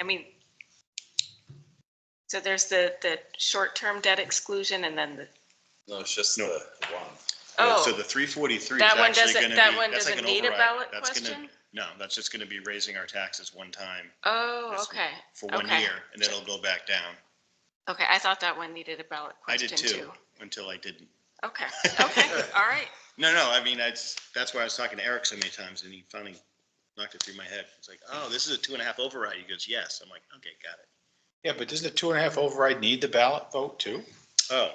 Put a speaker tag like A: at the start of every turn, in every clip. A: I mean, so there's the, the short-term debt exclusion and then the,
B: No, it's just the
C: No.
B: one.
C: Yeah, So
A: oh,
C: the three forty-three is
A: That one
C: actually
A: doesn't-
C: gonna be.
A: that one
C: that's like
A: doesn't
C: an
A: need a
C: override.
A: ballot
C: That's gonna-
A: question?
C: No, that's just gonna be raising our taxes one time
A: oh,
C: this-
A: okay.
C: for one
A: Okay.
C: year, and then it'll go back down.
A: Okay, I thought that one needed a ballot
C: I did
A: question too.
C: too, until I didn't.
A: Okay, okay, all right.
C: No, no, I mean, that's, that's why I was talking to Eric so many times, and he finally knocked it through my head. It's like, oh, this is a two and a half override. He goes, yes. I'm like, okay, got it.
D: Yeah, but doesn't the two and a half override need the ballot vote too?
C: Oh,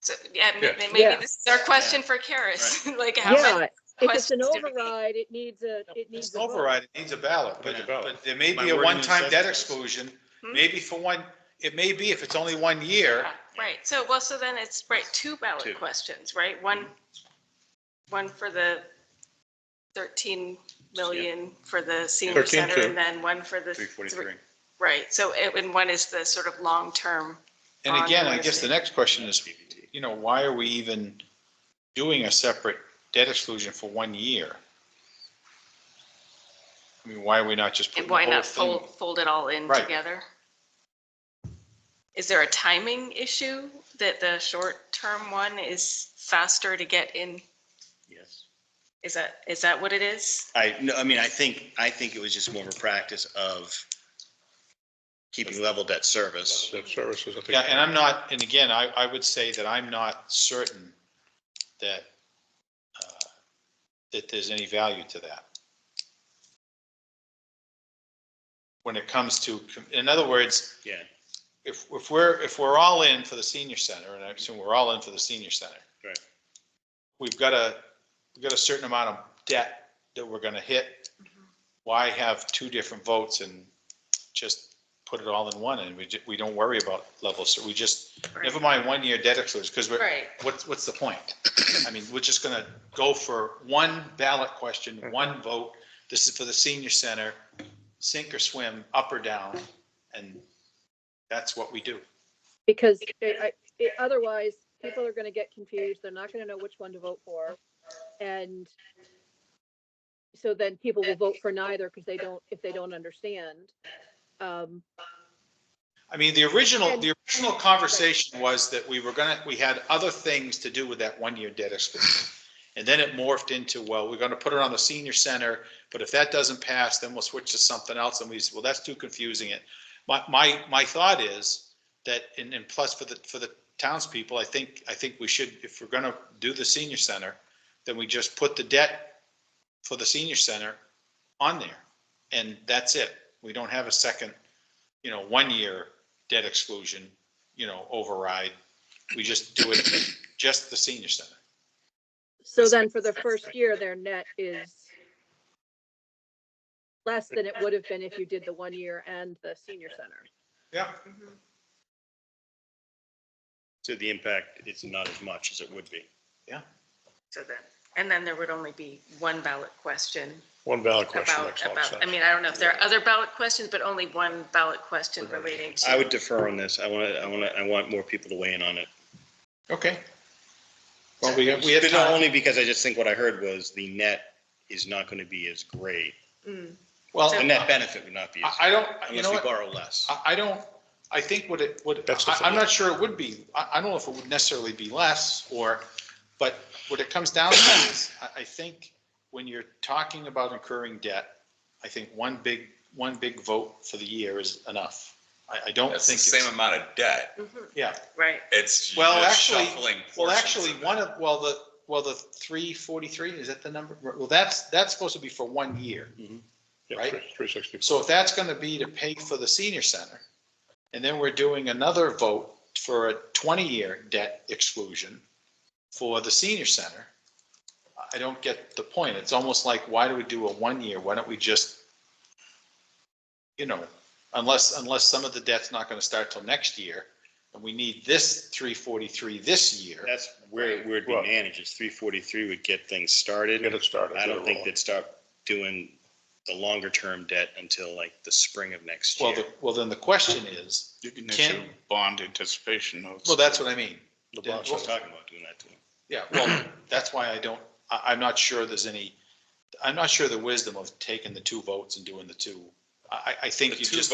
A: So, yeah, ma-
B: Yeah.
A: ma-
E: Yeah.
A: maybe this is our question for Karis, like how
E: Yeah,
A: many
E: if it's an
A: questions do we need?
E: override, it needs a, it needs
D: It's
E: a
D: an
E: vote.
D: override, it needs a ballot, but,
C: Needs a
B: ballot.
D: but there may
C: My
D: be a
C: wording
D: one-time
C: says
D: debt
C: so.
D: exclusion,
A: Hmm?
D: maybe for one, it may be if it's only one year.
A: Yeah, Right, so, well, so then it's, right, two
C: Two.
A: ballot questions, right? One, one for the 13 million for the senior
B: 13
A: center,
B: too.
A: and then one for the.
C: three forty-three.
A: Right, so, it- and one is the sort of long-term,
D: And
A: On
D: again, I
A: the
D: guess the next question is, you know, why are we even doing a separate debt exclusion for one year? I mean, why are we not just
A: and
D: putting the
A: why
D: whole
A: not
D: thing?
A: fold, fold it all in
D: Right.
A: together? Is there a timing issue that the short-term one is faster to get in?
C: Yes.
A: Is that, is that what it is?
C: I, no, I mean, I think, I think it was just more of a practice of keeping level debt service.
B: Debt services, I think.
D: Yeah, and I'm not, and again, I, I would say that I'm not certain that, uh, that there's any value to that. When it comes to, in other words,
C: Yeah,
D: if, if we're, if we're all in for the senior center, and I assume we're all in for the senior center.
C: Right.
D: We've got a, we've got a certain amount of debt that we're gonna hit. Why have two different votes and just put it all in one, and we, ju- we don't worry about levels, so we just, never mind one-year debt exclusion, because we're,
A: Right,
D: what's, what's the point? I mean, we're just gonna go for one ballot question, one vote, this is for the senior center, sink or swim, up or down, and that's what we do.
E: Because it- I- it- otherwise, people are gonna get confused, they're not gonna know which one to vote for, and so then people will vote for neither because they don't, if they don't understand. Um,
D: I mean, the original,
E: And-
D: the original conversation was that we were gonna, we had other things to do with that one-year debt exclusion. And then it morphed into, well, we're gonna put it on the senior center, but if that doesn't pass, then we'll switch to something else, and we said, well, that's too confusing it. My, my, my thought is that, and, and plus for the, for the townspeople, I think, I think we should, if we're gonna do the senior center, then we just put the debt for the senior center on there, and that's it. We don't have a second, you know, one-year debt exclusion, you know, override. We just do it, just the senior center.
E: so then for the first year, their net is less than it would have been if you did the one year and the senior center.
D: Yeah.
C: so the impact, it's not as much as it would be.
A: so then, and then there would only be one ballot question
B: One ballot question
A: about,
B: makes a lot of
A: about, I
B: sense.
A: mean, I don't know if there are other ballot questions, but only one ballot question relating to.
C: I would defer on this. I want to, I want to, I want more people to weigh in on it.
D: Okay. Well, we, we have
C: But not
D: time.
C: only because I just think what I heard was the net is not going to be as great.
A: Mm,
D: Well,
C: The net
D: I,
C: benefit would not be as,
D: I don't, you
C: unless
D: know
C: we
D: what,
C: borrow less.
D: I, I don't, I think what it, what,
B: That's the
D: I- I'm
B: thing.
D: not sure it would be, I, I don't know if it would necessarily be less or, but what it comes down to is, I, I think when you're talking about incurring debt, I think one big, one big vote for the year is enough. I, I don't think.
F: That's the
D: it's-
F: same amount of debt.
A: mhm,
D: Yeah.
A: Right,
F: It's
D: Well,
F: just
D: actually-
F: shuffling
D: Well,
F: portions
D: actually,
F: of
D: one
F: it.
D: of, well, the, well, the three forty-three, is that the number? Well, that's, that's supposed to be for one year. right?
B: Three sixty.
D: So if that's gonna be to pay for the senior center, and then we're doing another vote for a twenty-year debt exclusion for the senior center, I don't get the point. It's almost like, why do we do a one-year? Why don't we just, you know, unless, unless some of the debt's not gonna start till next year, and we need this three forty-three this year.
C: That's where, where it'd be
B: Well-
C: managed. Is three forty-three would get things started.
B: Get it started.
C: I don't
B: get it
C: think
B: rolling.
C: they'd start doing the longer term debt until like the spring of next
D: Well,
C: year.
D: the, well, then the question is,
G: You can
D: Can-
G: issue bond anticipation notes.
D: well, that's what I mean.
C: The boss was talking about doing that too.
D: Yeah, well, that's why I don't, I, I'm not sure there's any, I'm not sure the wisdom of taking the two votes and doing the two. I, I- I think
F: The
D: you
F: two
D: just.